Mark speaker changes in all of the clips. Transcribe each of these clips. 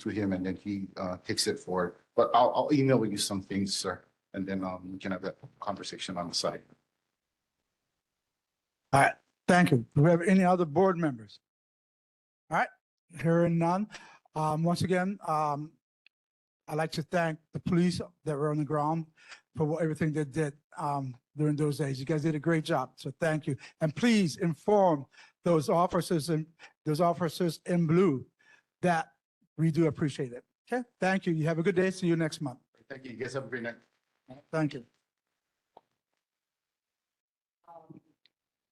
Speaker 1: to him and then he uh takes it forward. But I'll I'll email you some things, sir, and then um we can have that conversation on the side.
Speaker 2: Thank you. Do we have any other board members? All right, hearing none. Um, once again, um, I'd like to thank the police that were on the ground for what, everything they did, um, during those days. You guys did a great job, so thank you. And please inform those officers in, those officers in blue that we do appreciate it. Okay, thank you. You have a good day. See you next month.
Speaker 1: Thank you. You guys have a great night.
Speaker 2: Thank you.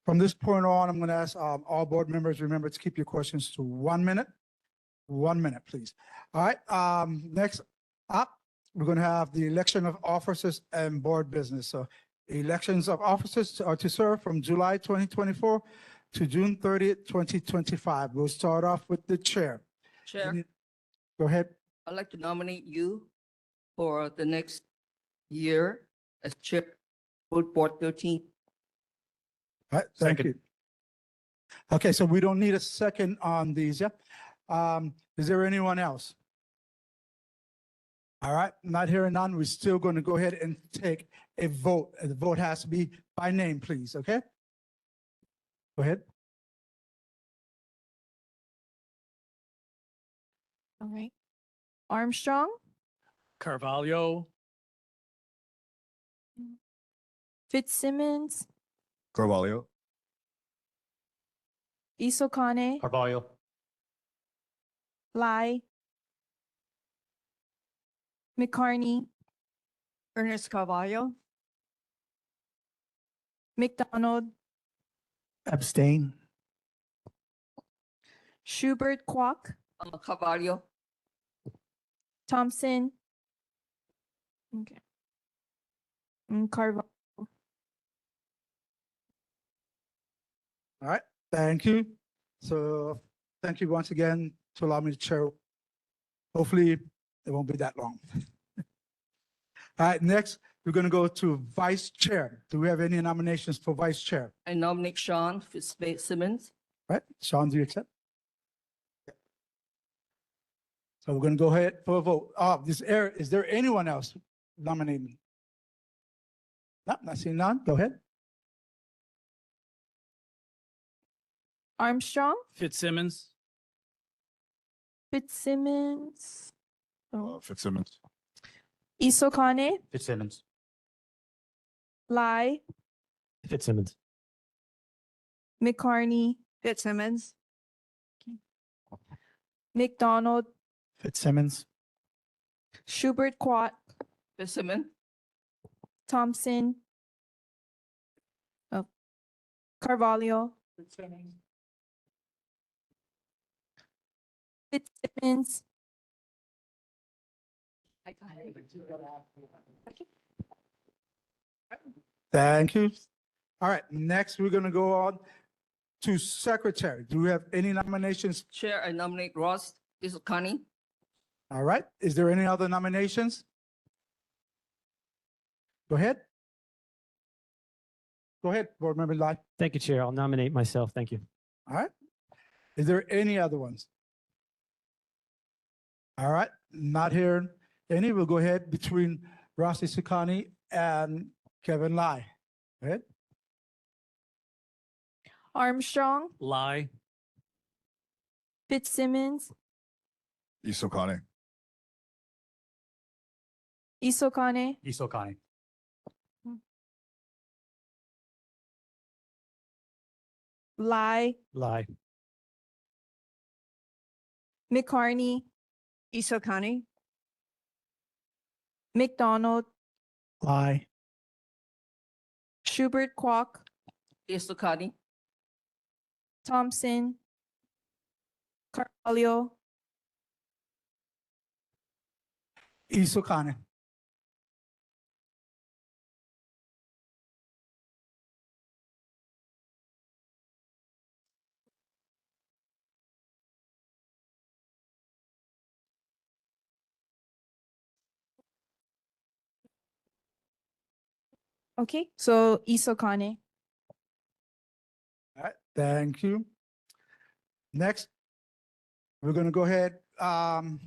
Speaker 2: From this point on, I'm going to ask um, all board members, remember to keep your questions to one minute. One minute, please. All right, um, next up, we're going to have the election of officers and board business. So elections of officers are to serve from July 2024 to June 30th, 2025. We'll start off with the chair.
Speaker 3: Chair,
Speaker 2: Go ahead.
Speaker 3: I'd like to nominate you for the next year as chair, Food Board thirteen.
Speaker 2: All right, thank you. Okay, so we don't need a second on these, yeah? Um, is there anyone else? All right, not hearing none, we're still going to go ahead and take a vote. Uh, The vote has to be by name, please, okay? Go ahead.
Speaker 4: All right. Armstrong,
Speaker 5: Carvalho,
Speaker 4: Fitzsimmons,
Speaker 6: Carvalho.
Speaker 4: Isokane,
Speaker 5: Carvalho,
Speaker 4: Lai, McCarney,
Speaker 3: Ernest Carvalho.
Speaker 4: McDonald,
Speaker 2: Abstain.
Speaker 4: Schubert Quack,
Speaker 3: Carvalho,
Speaker 4: Thompson. Okay. And Carvalho.
Speaker 2: All right, thank you. So thank you once again to allow me to chair. Hopefully, it won't be that long. All right, next, we're going to go to vice chair. Do we have any nominations for vice chair?
Speaker 3: I nominate Sean Fitzsimmons.
Speaker 2: Right, Sean, do you accept? So we're going to go ahead for a vote. Uh, this air, is there anyone else nominating? No, not seeing none. Go ahead.
Speaker 4: Armstrong,
Speaker 5: Fitzsimmons,
Speaker 4: Fitzsimmons, Oh.
Speaker 6: Uh, Fitzsimmons.
Speaker 4: Isokane,
Speaker 7: Fitzsimmons.
Speaker 4: Lai,
Speaker 5: Fitzsimmons.
Speaker 4: McCarney,
Speaker 3: Fitzsimmons.
Speaker 4: McDonald,
Speaker 7: Fitzsimmons.
Speaker 4: Schubert Quack,
Speaker 3: Fitzsimmons.
Speaker 4: Thompson. Oh. Carvalho. Fitzsimmons,
Speaker 2: Thank you. All right, next, we're gonna go on to secretary. Do we have any nominations?
Speaker 3: Chair, I nominate Ross Isokani.
Speaker 2: All right, is there any other nominations? Go ahead. Go ahead, Board Member Lai.
Speaker 8: Thank you, Chair. I'll nominate myself. Thank you.
Speaker 2: All right. Is there any other ones? All right, not hearing any. We'll go ahead between Rossi Sukani and Kevin Lai. Go ahead.
Speaker 4: Armstrong,
Speaker 5: Lie,
Speaker 4: Fitzsimmons,
Speaker 6: Isokane.
Speaker 4: Isokane,
Speaker 5: Isokani.
Speaker 4: Lai,
Speaker 8: Lie.
Speaker 4: McCarney. Isokane. McDonald,
Speaker 5: Lie.
Speaker 4: Schubert Quack,
Speaker 3: Isokani.
Speaker 4: Thompson. Carvalho,
Speaker 2: Isokane.
Speaker 4: okay, so Isokane.
Speaker 2: All right, thank you. Next, we're gonna go ahead, um,